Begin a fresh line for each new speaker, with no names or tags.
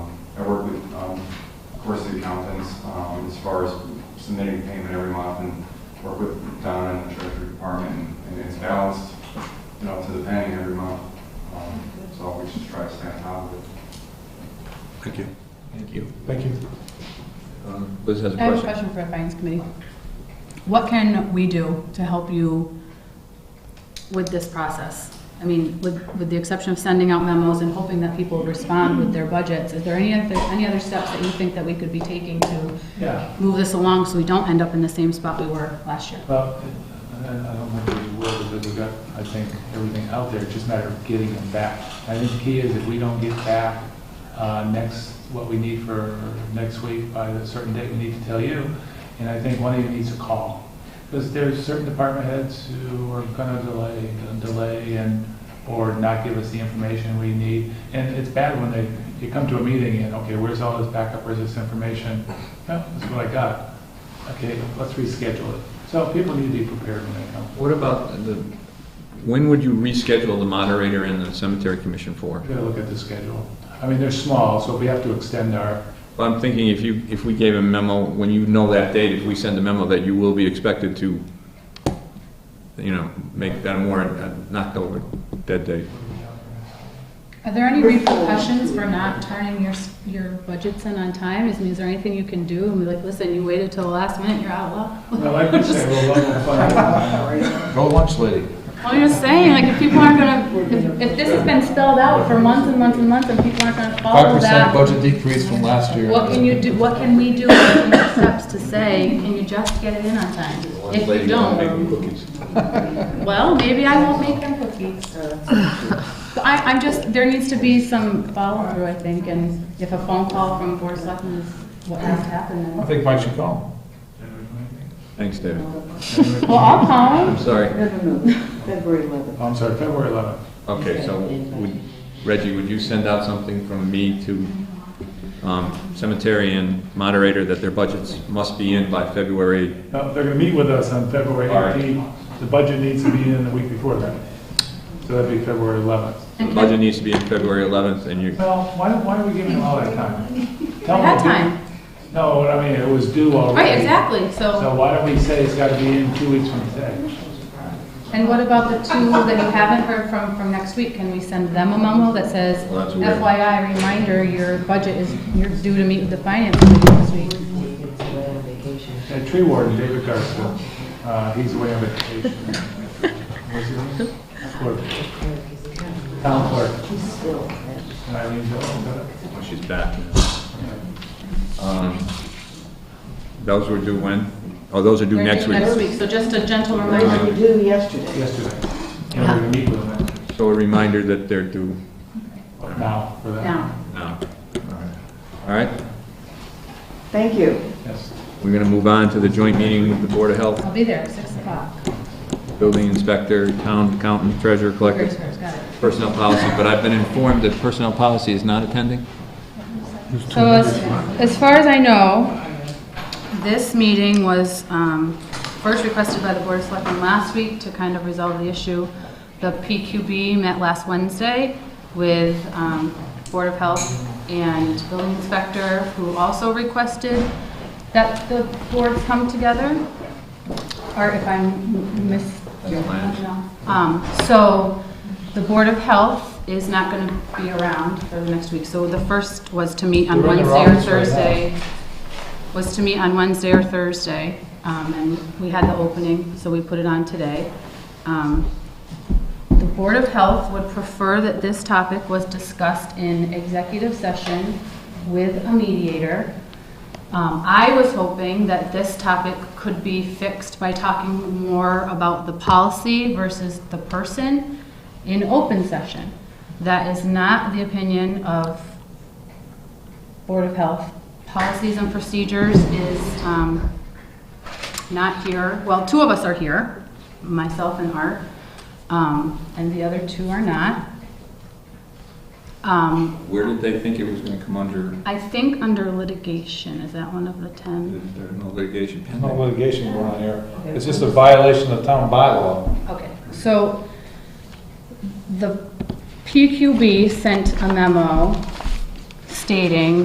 Um, works with um, the accountants, um, as far as submitting payment every month and work with Don and the treasury department, and- and it's balanced, you know, to the penny every month. Um, So we just try to stay on top of it.
Thank you.
Thank you.
Thank you.
Um, Liz has a
I have a
question.
question for the Finance Committee. What can we do to help you with this process? I mean, with, with the exception of sending out memos and hoping that people respond with their budgets, is there any other, any other steps that you think that we could be taking to
Yeah,
move this along so we don't end up in the same spot we were last year?
well, I I don't think we will, because we've got, I think, everything out there, it's just a matter of getting them back. I think the key is if we don't get back uh, next, what we need for next week by a certain date, we need to tell you, and I think one of you needs a call. Because there's certain department heads who are gonna delay, delay and, or not give us the information we need. And it's bad when they, you come to a meeting and, okay, where's all this backup, where's this information? No, that's what I got. Okay, let's reschedule it. So people need to be prepared when they come.
What about the, when would you reschedule the moderator and the cemetery commission for?
We gotta look at the schedule. I mean, they're small, so if we have to extend our,
Well, I'm thinking if you, if we gave a memo, when you know that date, if we send a memo that you will be expected to, you know, make that a warrant, uh, not go with that date.
Are there any repercussions for not turning your, s- your budgets in on time? Is, I mean, is there anything you can do? And be like, listen, you waited till the last minute, you're out of luck.
well, like we say, we'll level fund.
Go lunch lady.
Well, I'm just saying, like, if people aren't gonna, if, if this has been spelled out for months and months and months, and people aren't gonna
Five
follow
percent
that,
budget decrease from last year.
what can you do, what can we do, what can we take steps to say, can you just get it in on time? If you
Lady, don't make
don't, um,
me cookies.
well, maybe I won't make them cookies. But I, I'm just, there needs to be some follow-through, I think, and if a phone call from Board of Selectmen is what has happened,
I
then.
think Mike should call.
Thanks, David.
Well, I'll call
I'm
him.
sorry.
No, no, no, February 11th.
Oh, I'm sorry, February 11th.
Okay, so would, Reggie, would you send out something from me to um, cemetery and moderator that their budgets must be in by February?
No, they're gonna meet with us on February
All right.
18th. The budget needs to be in the week before that. So that'd be February 11th.
The budget needs to be in February 11th, and you,
Well, why, don't- why are we giving them all that time? Tell
I
them
had
to do-
time,
No, what I mean, it was due already.
right, exactly, so.
So why don't we say it's gotta be in two weeks from today?
And what about the two that you haven't heard from, from next week? Can we send them a memo that says,
Well, that's weird.
FYI, reminder, your budget is, you're due to meet with the finance committee this week?
Away on vacation.
Uh, Tree warden, David Garfield, uh, he's away on vacation. What's his name? Clerk.
uh,
Town clerk,
He's still at
and Eileen Jones.
oh, she's back. Um, Those were due when? Oh, those are due
They're
next
due
week.
Next week, so just a gentle
Mine
reminder.
was due yesterday.
yesterday. And we're going to meet with him
So a reminder that they're due
now for that.
Now,
now. All right,
Thank you.
Yes.
we're going to move on to the joint meeting with the Board of Health,
I'll be there, at six o'clock.
Building Inspector, Town Accountant, Treasurer Collector,
Here's hers, got it.
Personnel Policy, but I've been informed that Personnel Policy is not attending?
So as, as far as I know, this meeting was um, first requested by the Board of Selectmen last week to kind of resolve the issue. The PQB met last Wednesday with um, Board of Health and Building Inspector, who also requested that the boards come together or if I'm m- mis...
fine.
No. Um, so, the Board of Health is not gonna be around for the next week, so the first was to meet on
We're in their
Wednesday or
office right now.
Thursday. Was to meet on Wednesday or Thursday, um, and we had the opening, so we put it on today. Um, the Board of Health would prefer that this topic was discussed in executive session with a mediator. Um, I was hoping that this topic could be fixed by talking more about the policy versus the person in open session. That is not the opinion of Board of Health. Policies and procedures is um, not here, well, two of us are here, myself and Art, um, and the other two are not. Um,
Where did they think it was going to come under?
I think under litigation, is that one of the 10?
There's no litigation
There's no
pending.
litigation going on here. It's just a violation of town bylaw.
Okay, so the PQB sent a memo stating